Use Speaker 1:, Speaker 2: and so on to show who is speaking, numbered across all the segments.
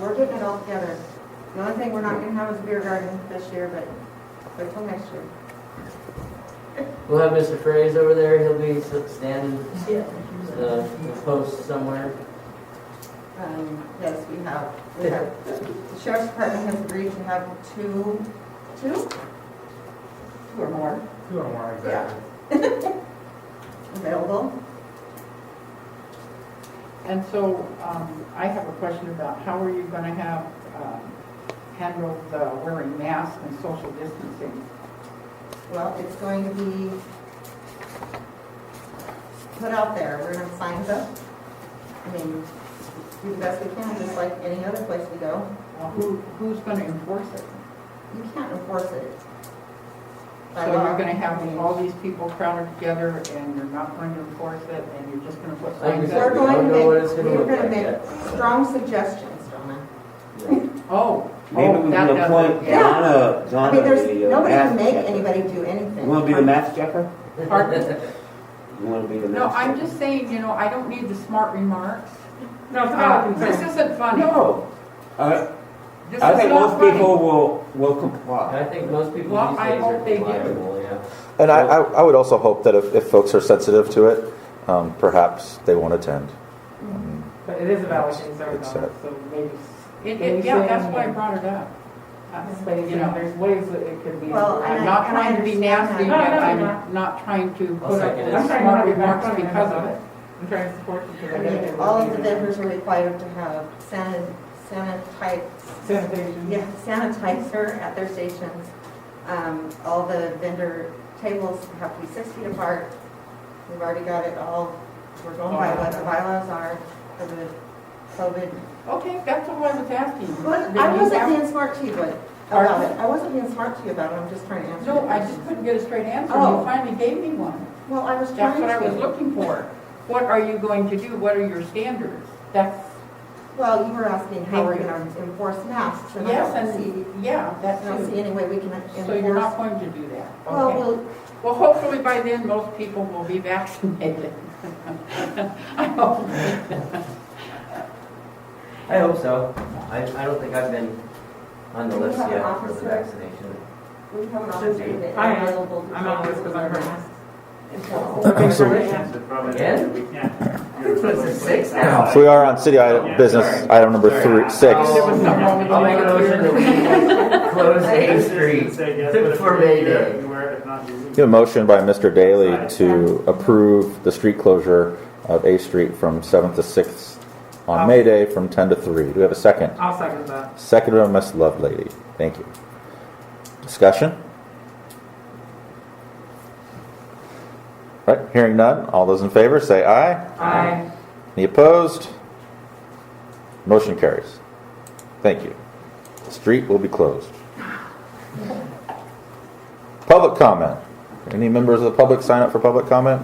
Speaker 1: we're putting it all together. The only thing we're not gonna have is a beer garden this year, but, but till next year.
Speaker 2: We'll have Mr. Fraze over there, he'll be s- standing, uh, the post somewhere.
Speaker 1: Um, yes, we have, we have, the sheriff's department has agreed to have two, two? Two or more
Speaker 3: Two or more, exactly.
Speaker 1: available.
Speaker 4: And so um, I have a question about how are you going to have, um, handle the wearing masks and social distancing?
Speaker 1: Well, it's going to be put out there, we're gonna have signs up. I mean, do the best we can, just like any other place we go.
Speaker 4: Well, Who, who's going to enforce it?
Speaker 1: You can't enforce it. by
Speaker 4: So
Speaker 1: law.
Speaker 4: you're going to have all these people crowded together and you're not going to enforce it and you're just going to put
Speaker 2: Like you
Speaker 4: signs
Speaker 2: said,
Speaker 1: We're
Speaker 4: up?
Speaker 2: don't
Speaker 1: going to
Speaker 2: know
Speaker 1: make,
Speaker 2: what it's gonna
Speaker 1: we're
Speaker 2: look
Speaker 1: gonna
Speaker 2: like
Speaker 1: make
Speaker 2: yet.
Speaker 1: strong suggestions, Donna.
Speaker 4: Oh,
Speaker 5: Maybe
Speaker 4: oh,
Speaker 5: we
Speaker 4: that
Speaker 5: can
Speaker 4: does
Speaker 5: appoint
Speaker 4: it.
Speaker 1: Yeah.
Speaker 5: Donna,
Speaker 1: I
Speaker 5: Donna
Speaker 1: mean,
Speaker 5: to
Speaker 1: there's,
Speaker 5: be a
Speaker 1: nobody
Speaker 5: math
Speaker 1: can make
Speaker 5: checker.
Speaker 1: anybody do anything.
Speaker 5: You wanna be the math checker?
Speaker 4: Pardon?
Speaker 5: You wanna be the
Speaker 4: No,
Speaker 5: math checker?
Speaker 4: I'm just saying, you know, I don't need the smart remarks.
Speaker 3: No, it's not a
Speaker 4: Uh, This
Speaker 3: concern.
Speaker 4: isn't funny.
Speaker 5: No. I,
Speaker 4: This is
Speaker 5: I think
Speaker 4: not
Speaker 5: most
Speaker 4: funny.
Speaker 5: people will, will
Speaker 2: I
Speaker 5: comply.
Speaker 2: think most people
Speaker 4: Well,
Speaker 2: these
Speaker 4: I
Speaker 2: days are
Speaker 4: hope they do.
Speaker 2: reliable, yeah.
Speaker 6: And I, I, I would also hope that if, if folks are sensitive to it, um, perhaps they won't attend.
Speaker 3: But it is a valid concern,
Speaker 6: It's
Speaker 3: though,
Speaker 6: a-
Speaker 3: so maybe,
Speaker 4: It,
Speaker 3: Can
Speaker 4: it,
Speaker 3: you
Speaker 4: yeah,
Speaker 3: say
Speaker 4: that's why I
Speaker 3: anything?
Speaker 4: brought it up. That's,
Speaker 3: but you
Speaker 4: you
Speaker 3: know,
Speaker 4: know,
Speaker 3: there's ways that it could be.
Speaker 1: Well, I-
Speaker 4: I'm not
Speaker 1: and I
Speaker 4: trying to be
Speaker 1: understand
Speaker 4: nasty, but
Speaker 3: that. No, no,
Speaker 4: I'm not trying to
Speaker 2: I'll
Speaker 4: put up
Speaker 2: second it.
Speaker 4: with
Speaker 3: I'm trying not to
Speaker 4: smart
Speaker 3: be
Speaker 4: remarks
Speaker 3: backbiting
Speaker 4: because
Speaker 3: about it.
Speaker 4: of it.
Speaker 3: I'm trying to support you.
Speaker 1: I mean, all of the vendors are required to have sanit, sanitize,
Speaker 3: Sanitation.
Speaker 1: yeah, sanitizer at their stations. Um, all the vendor tables have to be six feet apart. We've already got it all, we're going by what the bylaws are for the COVID.
Speaker 4: Okay, that's all I was asking.
Speaker 1: But
Speaker 4: Did
Speaker 1: I
Speaker 4: you
Speaker 1: wasn't
Speaker 4: have-
Speaker 1: being smart to you but- about it. I wasn't being smart to you about it. I'm just trying to answer. your
Speaker 4: No, I
Speaker 1: question.
Speaker 4: just couldn't get a straight answer.
Speaker 1: Oh.
Speaker 4: You finally gave me one.
Speaker 1: Well, I was trying
Speaker 4: That's
Speaker 1: to.
Speaker 4: what I was looking for. What are you going to do? What are your standards? That's,
Speaker 1: Well, you were asking how we're
Speaker 4: Thank you.
Speaker 1: gonna enforce masks and
Speaker 4: yes,
Speaker 1: I don't see,
Speaker 4: and, yeah,
Speaker 1: I
Speaker 4: that's
Speaker 1: don't see
Speaker 4: too.
Speaker 1: any way we can enforce.
Speaker 4: So you're not going to do that?
Speaker 1: Well,
Speaker 4: Okay.
Speaker 1: we'll,
Speaker 4: Well, hopefully by then, most people will be vaccinated. I hope.
Speaker 2: I hope so. I, I don't think I've been on the
Speaker 1: Do you
Speaker 2: list
Speaker 1: have an
Speaker 2: yet for the
Speaker 1: officer?
Speaker 2: vaccination.
Speaker 1: we have an
Speaker 2: Should be.
Speaker 1: opportunity
Speaker 3: I am.
Speaker 1: available. to
Speaker 3: I'm on
Speaker 1: talk
Speaker 3: this because
Speaker 1: to
Speaker 3: I'm
Speaker 1: them.
Speaker 3: hurt.
Speaker 6: Okay, so-
Speaker 2: Again?
Speaker 7: We
Speaker 2: This is six now.
Speaker 6: So we are on city item, business item number three, six.
Speaker 4: There was something wrong with the
Speaker 2: Oh, I'll make a motion that we close A Street. For May Day.
Speaker 6: You have a motion by Mr. Daly to approve the street closure of A Street from 7th to 6th on May Day from 10 to 3. Do we have a second?
Speaker 3: I'll second that.
Speaker 6: Seconded by Ms. Lovelady. Thank you. Discussion? Right, hearing none. All those in favor, say aye.
Speaker 3: I,
Speaker 6: Any opposed? Motion carries. Thank you. The street will be closed. Public comment. Any members of the public sign up for public comment?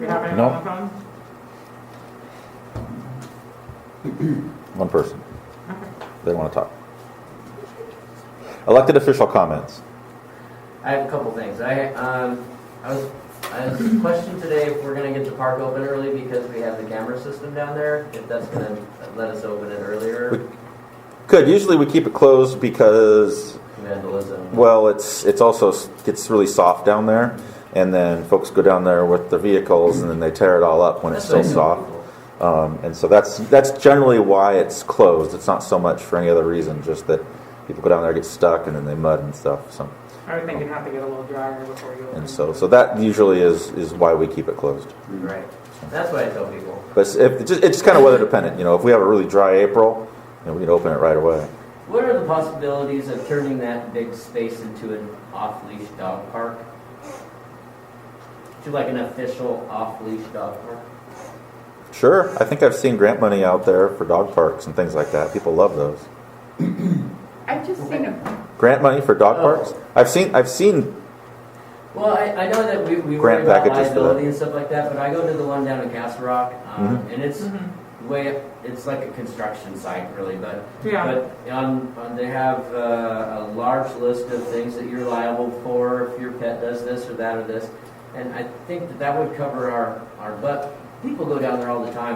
Speaker 3: we have anyone
Speaker 6: No.
Speaker 3: on the phone?
Speaker 6: One person. They want to talk. Elected official comments.
Speaker 2: I have a couple things. I, um, I was, I was questioned today if we're gonna get the park open early because we have the camera system down there, if that's gonna let us open it earlier,
Speaker 6: Good. Usually we keep it closed because,
Speaker 2: vandalism.
Speaker 6: well, it's, it's also gets really soft down there. And then folks go down there with their vehicles and then they tear it all up when it's
Speaker 2: That's
Speaker 6: still
Speaker 2: what I
Speaker 6: soft.
Speaker 2: do.
Speaker 6: Um, and so that's that's generally why it's closed. It's not so much for any other reason, just that people go down there, get stuck, and then they mud and stuff. So
Speaker 3: I would think you'd have to get a little drier before you.
Speaker 6: and so so that usually is is why we keep it closed.
Speaker 2: Right. That's what I tell people.
Speaker 6: But it's, if, it's, just, it's kind of weather dependent. You know, if we have a really dry April, you know, we can open it right away.
Speaker 2: What are the possibilities of turning that big space into an off-leash dog park? To like an official off-leash dog park?
Speaker 6: Sure, I think I've seen grant money out there for dog parks and things like that. People love those
Speaker 4: I've just seen a,
Speaker 6: grant money for dog
Speaker 2: Oh.
Speaker 6: parks. I've seen I've seen
Speaker 2: Well, I, I know that we, we worry
Speaker 6: Grant
Speaker 2: about
Speaker 6: packages for that.
Speaker 2: liability and stuff like that, but I go to the one down in Castle Rock, um,
Speaker 6: Mm-hmm.
Speaker 2: and it's
Speaker 3: Mhm.
Speaker 2: way up, it's like a construction site really, but
Speaker 3: Yeah,
Speaker 2: but on, on they have uh, a large list of things that you're liable for if your pet does this or that or this, and I think that that would cover our our butt. People go down there all the time.